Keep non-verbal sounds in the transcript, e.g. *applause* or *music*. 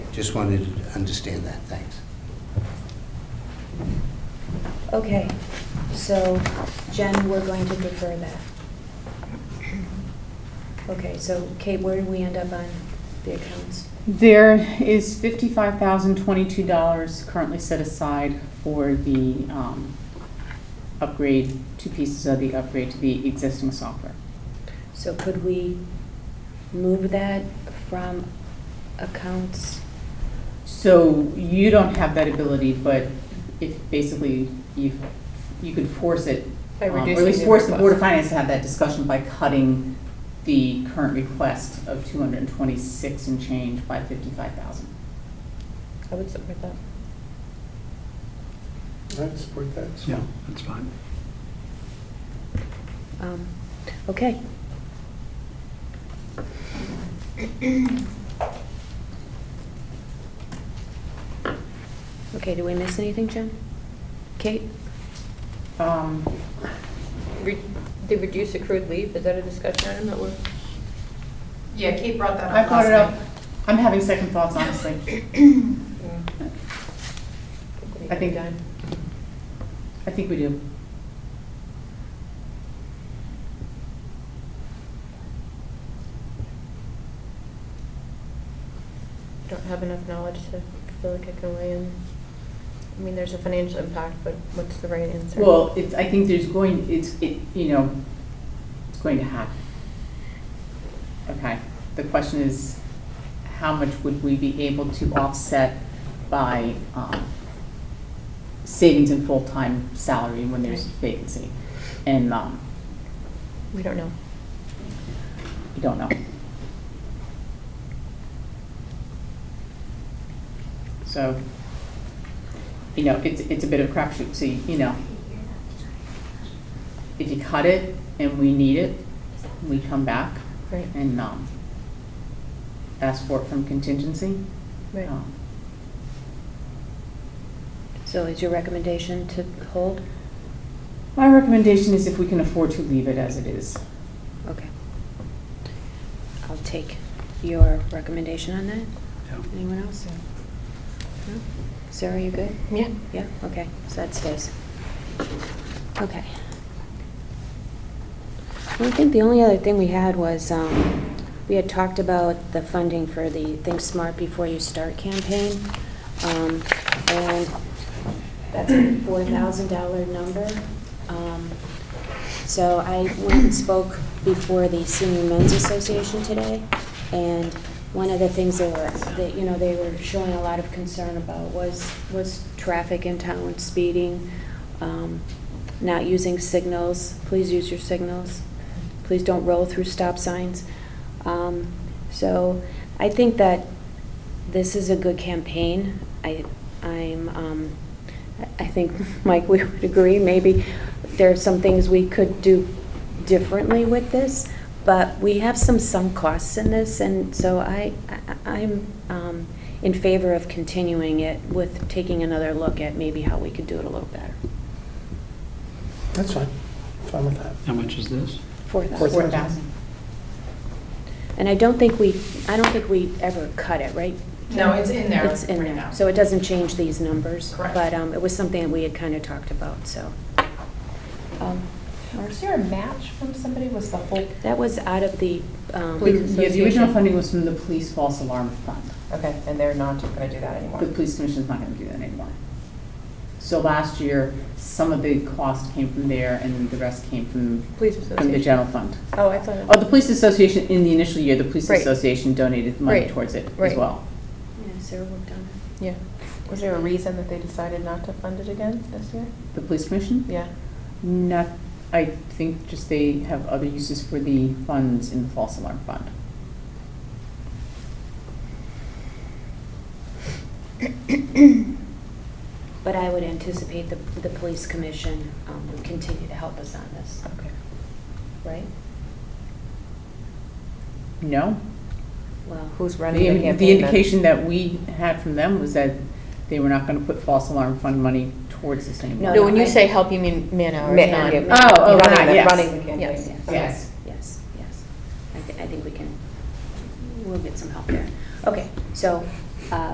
Just wanted to understand that, thanks. Okay, so Jen, we're going to defer that. Okay, so Kate, where do we end up on the accounts? There is fifty-five thousand twenty-two dollars currently set aside for the um, upgrade, two pieces of the upgrade to the existing software. So could we move that from accounts? So you don't have that ability, but if basically you, you could force it, By um, or at reducing least the force the Board of request. Finance to have that discussion by cutting the current request of two hundred and twenty-six and change by fifty-five thousand. I would support that. I'd support that. Yeah, that's fine. Um, Okay. Okay, do we miss anything, Jen? Kate? Um, Re- The reduce accrued leave, is that a discussion item that we're? Yeah, Kate brought that I up brought last it up, night. I'm having second thoughts, honestly. I think- done. I think we do. I don't have enough knowledge to feel like I can weigh in. I mean, there's a financial impact, but what's the right answer? Well, it's, I think there's going, it's, it, you know, it's going to happen. Okay, the question is, how much would we be able to offset by, um, savings in full-time salary when there's vacancy? And, um, We don't know. we don't know. So, you know, it's, it's a bit of a crapshoot, so, you know, if you cut it and we need it, we come back Right, and, um, ask for it from contingency. right. Um, So is your recommendation to hold? My recommendation is if we can afford to leave it as it is. Okay. I'll take your recommendation on that. Yeah. Anyone else? No? Sarah, you good? Yeah. Yeah, okay, so that stays. Okay. Well, I think the only other thing we had was, um, we had talked about the funding for the Think Smart Before You Start campaign. Um, and that's a four thousand dollar number. Um, so I went and spoke before the Senior Men's Association today, and one of the things they were, that, you know, they were showing a lot of concern about was, was traffic in town, speeding, um, not using signals, please use your signals, please don't roll through stop signs. Um, so I think that this is a good campaign. I, I'm, um, I- I think, *laughs* Mike, we would agree, maybe there are some things we could do differently with this, but we have some sunk costs in this, and so I, I- I'm um, in favor of continuing it with taking another look at maybe how we could do it a little better. That's fine. Fine with that. How much is this? Four Four thousand. Four thousand. thousand. And I don't think we, I don't think we ever cut it, right? No, it's in there It's in right there. now. So it doesn't change these numbers. Correct. But um, it was something that we had kind of talked about, so. Um, Mark? Was there a match from somebody? Was the whole, That was out of the, um, Please. Yeah, the original Association. funding was from the police false alarm fund. okay, and they're not going to do that anymore? the police commission's not gonna do that anymore. So last year, some of the cost came from there and the rest came from, Police from the Association. general fund. Oh, I thought. it- Oh, the police association, in the initial year, the police Right. association donated money Right, towards it as right. well. yeah, Sarah worked on it. Yeah. Was there a reason that they decided not to fund it again this year? The police commission? Yeah. Not, I think just they have other uses for the funds in the false alarm fund. But I would anticipate the, the police commission um, would continue to help us on this, Okay. right? No? Well, Who's running the The campaign the then? indication that we had from them was that they were not gonna put false alarm fund money towards this anymore. No, when you I- say help, you mean man hours, Man- not. yeah. Oh, oh, Running right, the- yes. Running the Yes. campaign. Okay. Yes. yes, yes. I, thi- I think we can, we'll get some help there. Okay, so uh,